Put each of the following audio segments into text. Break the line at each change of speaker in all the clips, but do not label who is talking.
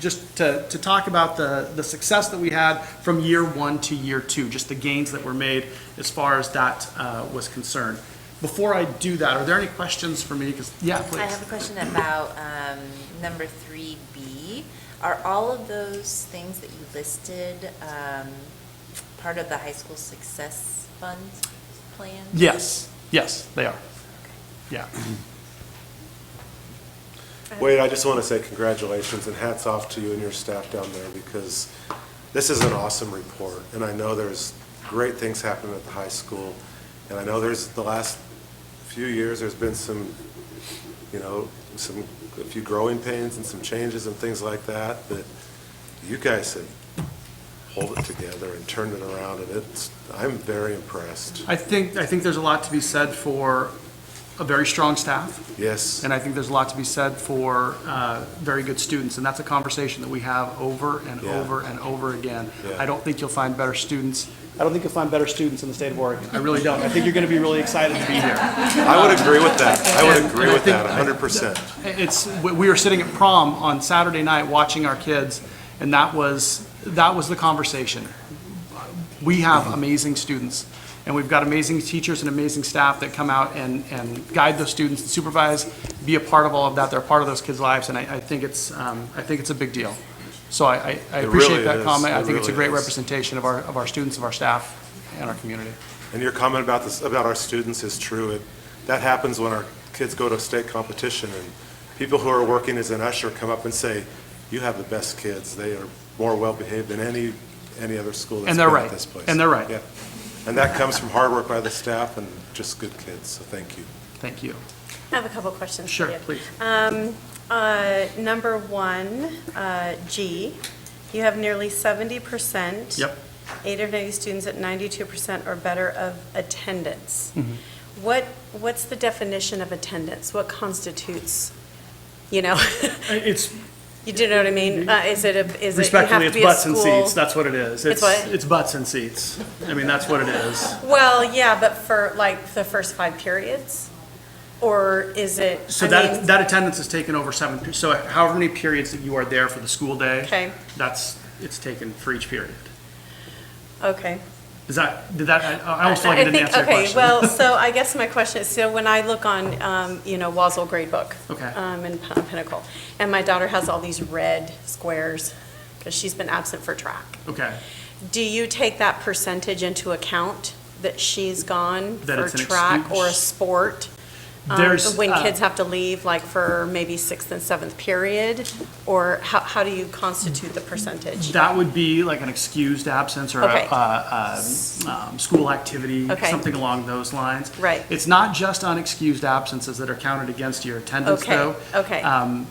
just to, to talk about the, the success that we had from year one to year two, just the gains that were made as far as that uh, was concerned. Before I do that, are there any questions for me? 'Cause- yeah, please.
I have a question about um, number three B. Are all of those things that you listed um, part of the high school success fund plan?
Yes, yes, they are. Yeah.
Wade, I just want to say congratulations and hats off to you and your staff down there because this is an awesome report. And I know there's great things happening at the high school. And I know there's, the last few years, there's been some, you know, some, a few growing pains and some changes and things like that. But you guys have hold it together and turned it around and it's, I'm very impressed.
I think, I think there's a lot to be said for a very strong staff.
Yes,
And I think there's a lot to be said for uh, very good students, and that's a conversation that we have over and
Yeah.
over and over again.
Yeah.
I don't think you'll find better students, I don't think you'll find better students in the state of Oregon. I really don't. I think you're going to be really excited to be here.
I would agree with that. I
And-
would
and
agree
I
with
think-
that, hundred percent.
It's, we we were sitting at prom on Saturday night watching our kids, and that was, that was the conversation. We have amazing students, and we've got amazing teachers and amazing staff that come out and, and guide those students, and supervise, be a part of all of that. They're a part of those kids' lives, and I, I think it's, um, I think it's a big deal. So I, I- I
It
appreciate
really
that
is.
comment.
It
I think it's a
really
great
is.
representation of our, of our students, of our staff, and our community.
And your comment about this, about our students is true. It, that happens when our kids go to state competition and people who are working as an usher come up and say, you have the best kids. They are more well-behaved than any, any other school that's
And they're
been
right.
at this place.
And they're right.
Yeah. And that comes from hard work by the staff and just good kids, so thank you.
Thank you.
I have a couple questions for
Sure,
you.
please.
Uh, Number one, uh, G, you have nearly 70%.
Yep.
Eight of 90 students at 92% or better of attendance.
Mm-hmm.
What, what's the definition of attendance? What constitutes, you know,
It's,
you do know what I mean? Uh, Is it a, is it, you have
Respectfully,
to
it's
be a
butts and
school?
seats, that's what it is.
It's what?
It's butts and seats. I mean, that's what it is.
Well, yeah, but for like the first five periods? Or is it?
So
I
that,
mean-
that attendance is taken over seven, per- so however many periods that you are there for the school day.
Okay.
That's, it's taken for each period.
Okay.
Is that, did that, I- I almost feel like I
I
didn't
think-
answer your question.
Okay, well, so I guess my question is, so when I look on, um, you know, Wasl Gradebook.
Okay.
um, And Pin- Pinnacle, and my daughter has all these red squares, because she's been absent for track.
Okay,
Do you take that percentage into account, that she's gone
That
for
it's an
track
excuse?
or a sport? um,
There's,
When
uh,
kids have to leave, like for maybe sixth and seventh period? Or how, how do you constitute the percentage?
that would be like an excused absence or a,
Okay.
uh, um, um, school activity,
Okay.
something along those lines.
Right.
It's not just unexcused absences that are counted against your attendance
Okay,
though. um,
okay.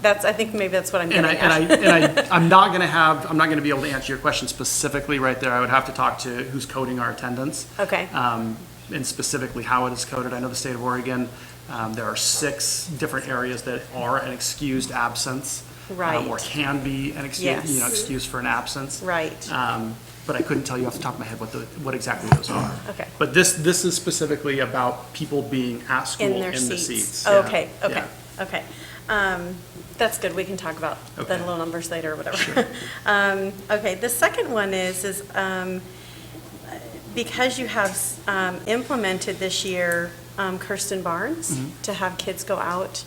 That's, I think maybe that's what I'm
And
getting
I,
at.
and I, and I, I'm not gonna have, I'm not gonna be able to answer your question specifically right there. I would have to talk to who's coding our attendance.
Okay.
Um, and specifically how it is coded. I know the state of Oregon, um, there are six different areas that are an excused absence. um, Or
Right.
can be an excuse, you know,
Yes.
excuse for an absence.
Right.
Um, but I couldn't tell you off the top of my head what the, what exactly those are.
Okay.
But this, this is specifically about people being at
In
school in
their
the seats.
seats.
Yeah,
Okay, okay,
yeah.
okay. Um, That's good, we can talk about the
Okay.
little numbers later or whatever. Um, Okay, the second one is, is um, because you have um, implemented this year um, Kirsten Barnes,
Mm-hmm.
to have kids go out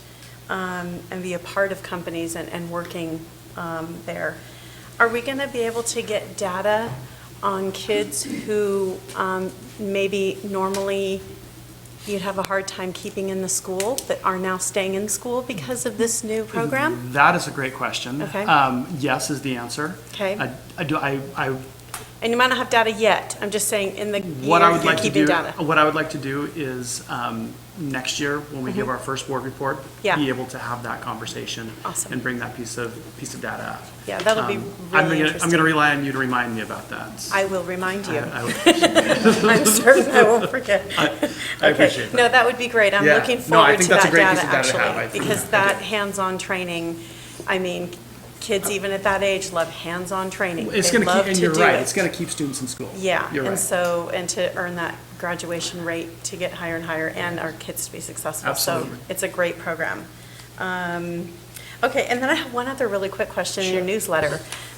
um, and be a part of companies and, and working um, there, are we going to be able to get data on kids who um, maybe normally you'd have a hard time keeping in the school that are now staying in school because of this new program?
That is a great question.
Okay.
Um, Yes is the answer.
Okay.
I- I do, I, I,
And you might not have data yet, I'm just saying in the
what I
year
would
you're
like to do,
keeping data.
what I would like to do is, um, next year, when we give our first board report,
Mm-hmm. Yeah.
be able to have that conversation.
Awesome.
And bring that piece of, piece of data up.
Yeah, that'll be
Um, I'm
really
gonna- I'm
interesting.
gonna rely on you to remind me about that.
I will remind you.
I would-
I'm certain I won't forget.
I
Okay.
appreciate that.
No, that would be great. I'm
Yeah.
looking
No, I
forward
think
to
that's a
that
great
data,
piece of data to have. I
actually.
think-
Because that hands-on training, I mean, kids even at that age love hands-on training.
It's
They
gonna
love
keep, and
to
you're
do
right,
it.
it's gonna keep students in school.
Yeah,
You're
and
right.
so, and to earn that graduation rate to get higher and higher and our kids to be successful.
Absolutely.
So it's a great program. Um, Okay, and then I have one other really quick question in your newsletter.